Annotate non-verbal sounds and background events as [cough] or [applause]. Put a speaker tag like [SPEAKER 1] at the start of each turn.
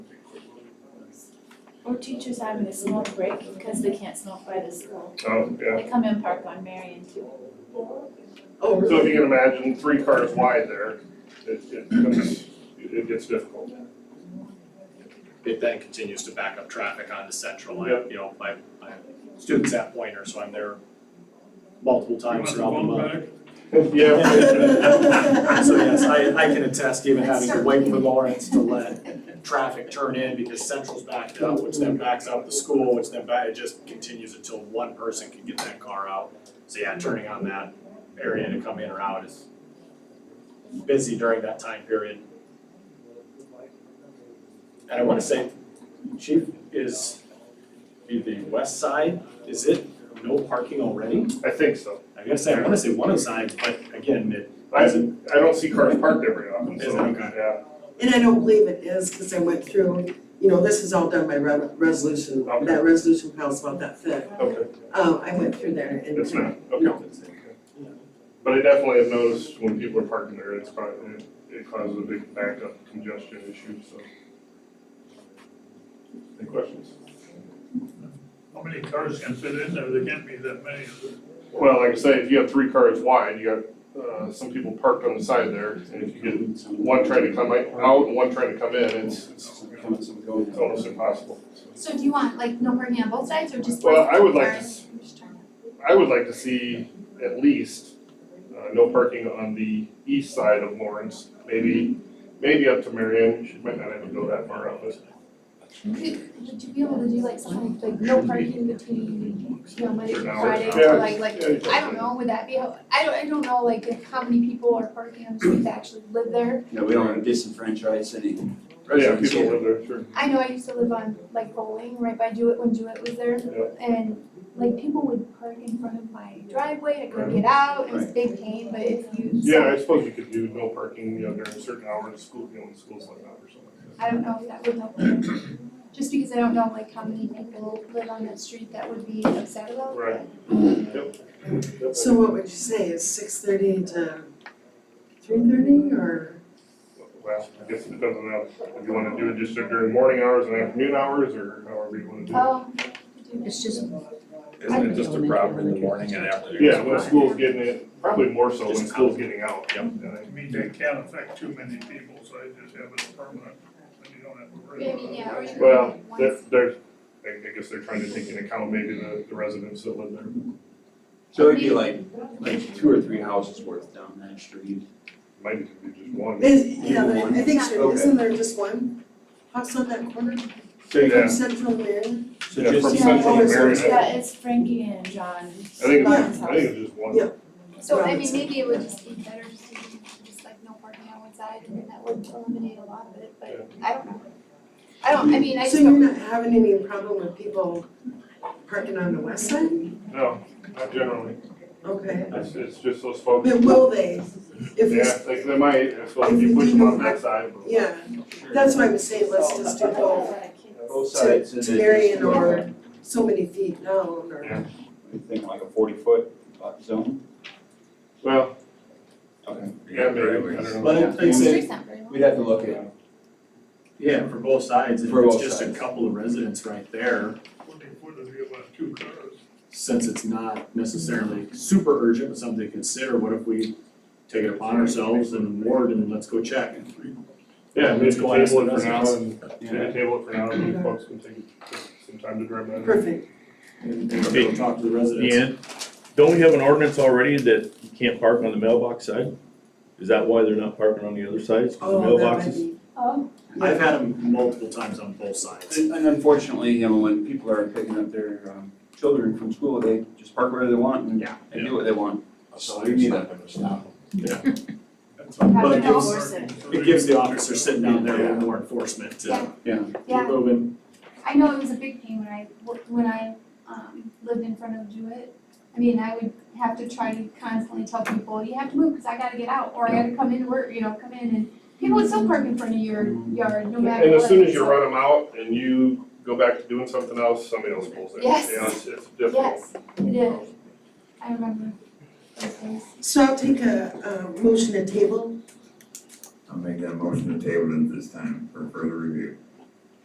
[SPEAKER 1] Or teachers having a smoke break because they can't smoke by the school.
[SPEAKER 2] Oh, yeah.
[SPEAKER 1] They come in park on Marion too.
[SPEAKER 3] Oh,
[SPEAKER 2] So if
[SPEAKER 3] really?
[SPEAKER 2] you can imagine, three cars wide there, it, it becomes, it gets difficult.
[SPEAKER 4] It then continues to back up traffic onto Central, I, you know, my, my students at Pointer, so I'm there multiple times throughout the month.
[SPEAKER 2] Yeah.
[SPEAKER 4] [laughs] So yes, I, I can attest even having to wait for Lawrence to let traffic turn in because Central's backed up, which then backs up the school, which then back, it just continues until one person can get that car out. So yeah, turning on that area to come in or out is busy during that time period. And I wanna say, Chief, is, be the west side, is it no parking already?
[SPEAKER 2] I think so.
[SPEAKER 4] I gotta say, I wanna say one of the sides, but again, it
[SPEAKER 2] I, I don't see cars parked there very often,
[SPEAKER 4] Is
[SPEAKER 2] so,
[SPEAKER 4] it? Okay.
[SPEAKER 2] yeah.
[SPEAKER 3] And I don't believe it is, because I went through, you know, this is all done by re- resolution,
[SPEAKER 2] Okay.
[SPEAKER 3] that resolution file's about that thick.
[SPEAKER 2] Okay,
[SPEAKER 3] Um, I went through there and.
[SPEAKER 2] it's not,
[SPEAKER 3] No.
[SPEAKER 2] okay. But I definitely have noticed when people are parking there, it's probably, it- it causes a big backup congestion issue, so. Any questions?
[SPEAKER 5] How many cars can fit in there? There can't be that many.
[SPEAKER 2] Well, like I say, if you have three cars wide, you got, uh, some people parked on the side there, and if you get one trying to come out and one trying to come in, it's, it's it's almost impossible.
[SPEAKER 6] So do you want like no parking on both sides or just?
[SPEAKER 2] Well, I would like to s-
[SPEAKER 6] I'm just trying to-
[SPEAKER 2] I would like to see at least, uh, no parking on the east side of Lawrence, maybe, maybe up to Marion, she might not have to go that far up, but
[SPEAKER 6] Could, would you be able to do like something like no parking between, you know, Monday
[SPEAKER 2] Certain
[SPEAKER 6] through
[SPEAKER 2] hours.
[SPEAKER 6] Friday,
[SPEAKER 2] Yeah.
[SPEAKER 6] or like, like, I don't know, would that be, how- I don't, I don't know, like, if how many people are parking on the street that actually live there?
[SPEAKER 7] Yeah, we don't wanna disenfranchise any
[SPEAKER 2] yeah,
[SPEAKER 7] residents
[SPEAKER 2] people
[SPEAKER 7] here.
[SPEAKER 2] live there, sure.
[SPEAKER 6] I know I used to live on like bowling, right by Jewett, when Jewett was there,
[SPEAKER 2] Yeah.
[SPEAKER 6] and like people would park in front of my driveway, I couldn't get out, it was a big pain, but if you.
[SPEAKER 2] Yeah, I suppose you could do no parking, you know, during certain hours, school, you know, when school's like that or something like that.
[SPEAKER 6] I don't know if that would help. either. Just because I don't know like how many people live on that street that would be upset about.
[SPEAKER 2] Right. Yep.
[SPEAKER 3] So what would you say, is six thirty to three thirty, or?
[SPEAKER 2] Well, I guess it depends on how, if you wanna do it just during morning hours and afternoon hours, or however you wanna do it.
[SPEAKER 6] Um,
[SPEAKER 8] It's just.
[SPEAKER 9] Isn't it just a problem in the morning and afternoon?
[SPEAKER 2] Yeah, when school's getting it, probably more so when school's getting out.
[SPEAKER 4] Yep.
[SPEAKER 2] And I-
[SPEAKER 5] I mean, they can't affect too many people, so I just have it permanent, and you don't have to worry
[SPEAKER 6] I
[SPEAKER 5] about it.
[SPEAKER 6] mean, yeah, or you could
[SPEAKER 2] Well,
[SPEAKER 6] like one
[SPEAKER 2] they're, they're, I I guess they're trying to take into account maybe the, the residents that live there,
[SPEAKER 7] So it'd be like, like two or three houses worth down that street.
[SPEAKER 2] maybe it could be just one.
[SPEAKER 3] Is, yeah, there- I think, so.
[SPEAKER 7] Okay.
[SPEAKER 3] isn't there just one house on that corner,
[SPEAKER 2] Yeah,
[SPEAKER 3] Central Marin?
[SPEAKER 7] So
[SPEAKER 2] Yeah,
[SPEAKER 7] just
[SPEAKER 2] from
[SPEAKER 7] these
[SPEAKER 2] Central
[SPEAKER 3] Yeah,
[SPEAKER 2] to
[SPEAKER 3] it's-
[SPEAKER 2] Marion, I
[SPEAKER 1] That is Frankie and John.
[SPEAKER 2] I think it's,
[SPEAKER 1] Barnes'
[SPEAKER 2] I
[SPEAKER 1] house.
[SPEAKER 2] think it's just one.
[SPEAKER 3] Yeah.
[SPEAKER 6] So I mean, maybe it would just be better just to do just like no parking on one side and then that would eliminate a lot of it, but I don't know. I don't, I mean, I just
[SPEAKER 3] So
[SPEAKER 6] don't.
[SPEAKER 3] you're not having any problem with people parking on the west side?
[SPEAKER 2] No, not generally,
[SPEAKER 3] Okay.
[SPEAKER 2] it's, it's just those folks.
[SPEAKER 3] Then will they, if
[SPEAKER 2] Yeah,
[SPEAKER 3] it's,
[SPEAKER 2] like they might, I suppose,
[SPEAKER 3] if
[SPEAKER 2] if you
[SPEAKER 3] you
[SPEAKER 2] push
[SPEAKER 3] do
[SPEAKER 2] them on
[SPEAKER 3] go
[SPEAKER 2] that
[SPEAKER 3] back-
[SPEAKER 2] side, but.
[SPEAKER 3] yeah, that's why I'm saying let's just do both,
[SPEAKER 2] Oh.
[SPEAKER 7] both sides and
[SPEAKER 3] to
[SPEAKER 7] then just
[SPEAKER 3] Marion
[SPEAKER 7] like
[SPEAKER 3] or-
[SPEAKER 7] a-
[SPEAKER 3] so many feet down or.
[SPEAKER 2] Yeah.
[SPEAKER 7] I think like a forty foot zone.
[SPEAKER 2] Well,
[SPEAKER 7] Okay.
[SPEAKER 2] yeah, maybe, I don't know.
[SPEAKER 4] But I'd- I'd
[SPEAKER 6] The
[SPEAKER 4] say,
[SPEAKER 6] street's not very long.
[SPEAKER 7] We'd have to look at,
[SPEAKER 4] yeah, for both sides, if
[SPEAKER 7] For
[SPEAKER 4] it's
[SPEAKER 7] both
[SPEAKER 4] just a
[SPEAKER 7] sides.
[SPEAKER 4] couple of residents right there,
[SPEAKER 5] Twenty foot would be about uh, two cars.
[SPEAKER 4] since it's not necessarily super urgent, but something to consider, what if we take it upon ourselves and ward and let's go check?
[SPEAKER 2] Yeah, maybe
[SPEAKER 4] Let's go ask
[SPEAKER 2] table it
[SPEAKER 4] the
[SPEAKER 2] for now,
[SPEAKER 4] residents.
[SPEAKER 2] and,
[SPEAKER 7] yeah,
[SPEAKER 2] yeah, table it for now, and folks can take some time to grab that.
[SPEAKER 3] Perfect.
[SPEAKER 4] And and go talk to the residents.
[SPEAKER 9] And don't we have an ordinance already that you can't park on the mailbox side? Is that why they're not parking on the other side, It's 'cause the
[SPEAKER 3] Oh, that might
[SPEAKER 9] mailboxes?
[SPEAKER 3] be,
[SPEAKER 6] Um,
[SPEAKER 4] I've had them multiple times on both sides.
[SPEAKER 7] and and unfortunately, you know, when people are picking up their um children from school, they just park wherever they want and
[SPEAKER 4] Yeah.
[SPEAKER 7] and do what they want. So you need a,
[SPEAKER 6] I
[SPEAKER 4] But
[SPEAKER 6] don't
[SPEAKER 4] it
[SPEAKER 6] know.
[SPEAKER 4] gives, it gives the officer sitting down there a little more enforcement to
[SPEAKER 6] Yeah.
[SPEAKER 7] yeah,
[SPEAKER 4] keep
[SPEAKER 6] yeah,
[SPEAKER 4] moving.
[SPEAKER 6] I know it was a big pain when I, wo- when I, um, lived in front of Jewett. I mean, I would have to try to constantly tell people, you have to move, cause I gotta get out, or I gotta come in work, you know, come in and people would still park in front of your yard, no matter
[SPEAKER 2] And
[SPEAKER 6] what.
[SPEAKER 2] as soon as you
[SPEAKER 6] so-
[SPEAKER 2] run them out and you go back to doing something else, somebody else pulls in, you know,
[SPEAKER 6] Yes.
[SPEAKER 2] it's, it's difficult.
[SPEAKER 6] Yes, it is. I remember those days.
[SPEAKER 3] so I'll take a, a motion to table,
[SPEAKER 10] I'll make that motion to table it this time for further review.